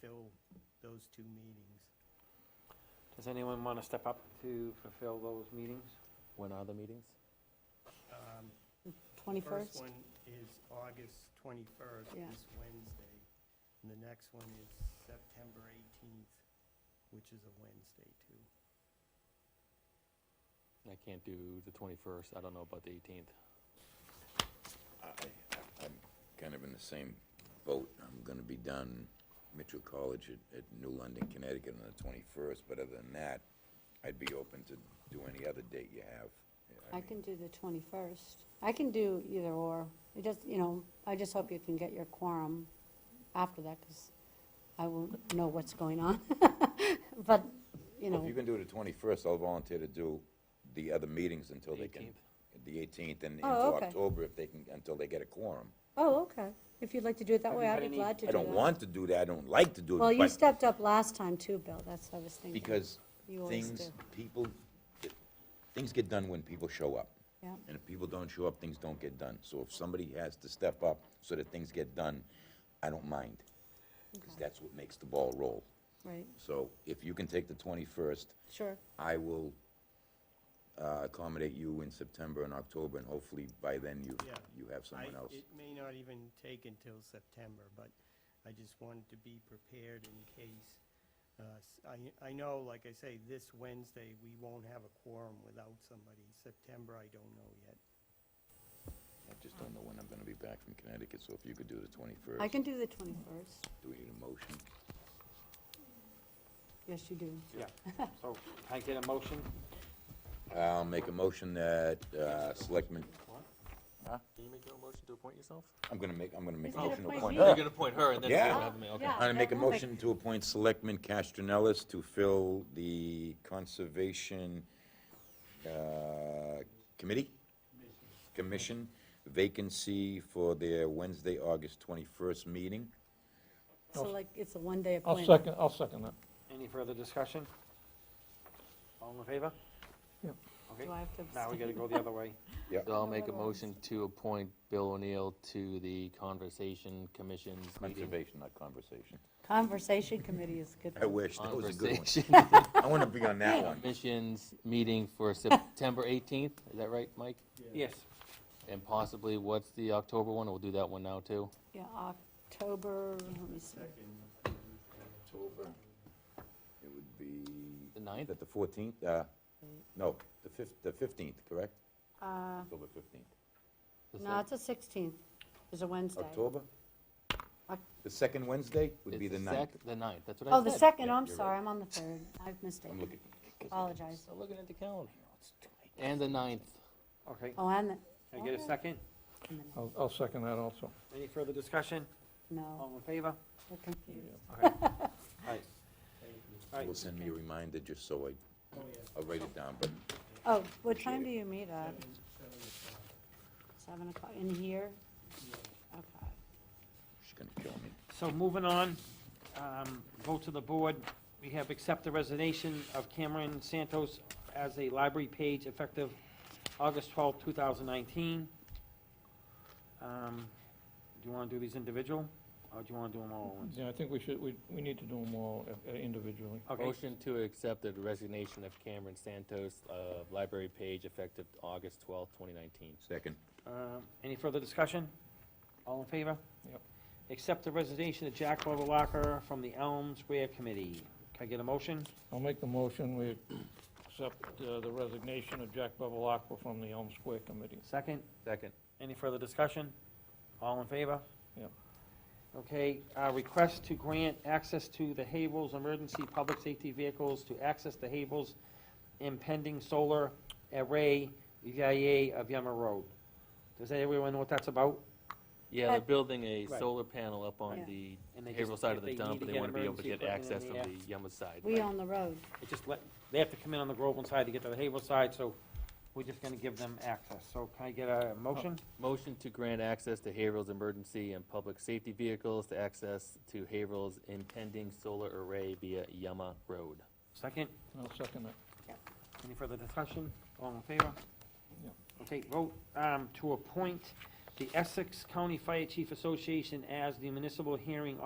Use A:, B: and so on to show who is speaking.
A: fill those two meetings.
B: Does anyone want to step up to fulfill those meetings?
C: When are the meetings?
A: Um, The
D: 21st?
A: first one is August 21st,
D: Yeah.
A: this Wednesday, and the next one is September 18th, which is a Wednesday, too.
C: I can't do the 21st, I don't know about the 18th.
E: I, I- I'm kind of in the same boat. I'm gonna be down Mitchell College at, at New London, Connecticut on the twenty-first, but other than that, I'd be open to do any other date you have.
D: I
E: mean,
D: can do the 21st. I can do either or. It just, you know, I just hope you can get your quorum after that, because I won't know what's going on. But, you
E: If
D: know,
E: you can do the twenty-first, I'll volunteer to do the other meetings until they can, the eighteenth and into
D: Oh, okay.
E: October if they can, until they get a quorum.
D: oh, okay. If you'd like to do it that
B: Have
D: way,
B: you
D: I'd
B: had
D: be
B: any-
D: glad to do
E: I
D: that.
E: don't want to do that, I don't like to do
D: Well,
E: it,
D: you
E: but
D: stepped up last time too, Bill. That's what I was thinking.
E: because
D: You always
E: things,
D: do.
E: people, things get done when people show up.
D: Yeah.
E: And if people don't show up, things don't get done. So if somebody has to step up so that things get done, I don't mind, because that's what makes the ball roll.
D: Right,
E: So if you can take the 21st,
D: sure.
E: I will uh, accommodate you in September and October, and hopefully by then you,
A: Yeah.
E: you have someone
A: I-
E: else.
A: It may not even take until September, but I just wanted to be prepared in case. uh, s- I, I know, like I say, this Wednesday, we won't have a quorum without somebody. September, I don't know yet.
E: I just don't know when I'm gonna be back from Connecticut, so if you could do the 21st.
D: I can do the 21st.
E: Do we need a motion?
D: Yes, you do.
B: Yeah. So can I get a motion?
E: I'll make a motion that uh, Selectmen,
C: Can you make a motion to appoint yourself?
E: I'm gonna make, I'm gonna make a
D: He's gonna
E: motion to
D: appoint
E: appoint
D: you.
E: her.
D: You're
C: appoint her and
E: then you're Yeah. gonna
D: have me, okay.
E: I'm gonna make a
D: Yeah, I'll make-
E: motion to appoint Selectman Castronellis to fill the Conservation uh, Committee? Commission vacancy for their Wednesday, August 21st meeting.
D: So like, it's a one-day
F: I'll
D: appointment.
F: second, I'll second that.
B: Any further discussion? All in favor?
F: Yep.
B: Okay,
D: Do I have to
B: now we gotta
D: abstain?
B: go the other way.
C: So I'll
D: No,
C: make a
D: we're on.
C: motion to appoint Bill O'Neill to the Conversation Commission's meeting.
E: Conservation, not conversation.
D: Conversation committee is good.
E: I wish, that was a good one.
C: Conversation
E: I wanna be on that one.
C: Commission's meeting for September 18th, is that right, Mike?
B: Yes.
C: And possibly, what's the October one? We'll do that one now, too.
D: Yeah, October, let me see.
E: October, it would be.
C: The ninth?
E: At the 14th, uh, no, the fif- the 15th, correct?
D: Uh,
E: October 15th.
C: The
D: No,
C: sec-
D: it's the 16th. It's a Wednesday.
E: October?
D: Oc-
E: The second Wednesday would be
C: it's
E: the ninth.
C: sec- The ninth, that's what I said.
D: Oh, the second,
E: Yeah,
D: I'm
E: you're
D: sorry, I'm on the third. I've
E: I'm
D: mistaken.
E: looking.
D: Apologize.
C: I'm looking at the calendar. And the ninth.
B: Okay,
D: Oh, and the,
B: can I get a second?
E: Oh.
F: I'll, I'll second that also.
B: Any further discussion?
D: no,
B: All
E: Oh.
B: in favor?
D: we're confused.
B: All right. All
E: Will
B: right, Oh,
E: send me a reminder just so I, I'll write it down, but
D: Oh, what
E: Appreciate
D: time
E: it.
D: do you meet at? Seven o'clock, in here? Okay.
E: she's gonna kill me.
B: so moving on, um, vote to the board. We have accept the resignation of Cameron Santos as a library page effective August twelfth, two thousand nineteen. Um, do you wanna do these individual, or do you wanna do them all at once?
F: Yeah, I think we should, we, we need to do them all uh, individually.
B: Okay,
C: Motion to accept the resignation of Cameron Santos, uh, library page effective August twelfth, twenty nineteen.
E: Second,
B: um, any further discussion? All in favor?
F: Yep.
B: Accept the resignation of Jack Lovalacker from the Elm Square Committee. Can I get a motion?
F: I'll make the motion, we accept uh, the resignation of Jack Bevelacqua from the Elm Square Committee.
B: Second?
C: Second.
B: Any further discussion? All in favor?
F: Yep.
B: Okay, uh, request to grant access to the Havel's emergency public safety vehicles to access the Havel's impending solar array VIA of Yama Road. Does everyone know what that's about?
C: Yeah, they're
D: But-
C: building a
B: Right.
C: solar panel up
D: Yeah.
C: on the
B: And they just-
C: Haverhill side of the
B: they need
C: dump,
B: to
C: and they
B: get
C: wanna be able to
B: emergency
C: get
B: equipment in
C: access from
B: there.
C: the Yarmouth side.
D: We
C: right?
D: own the road.
B: It just let, they have to come in on the Groveland side to get to the Havel side, so we're just gonna give them access. So can I get a motion?
C: Oh. Motion to grant access to Haverhill's emergency and public safety vehicles to access to Haverhill's impending solar array via Yama Road.
B: Second?
F: I'll second that.
B: Any further discussion? All in favor?
F: Yeah.
B: Okay, vote um, to appoint the Essex County Fire Chief Association as the municipal hearing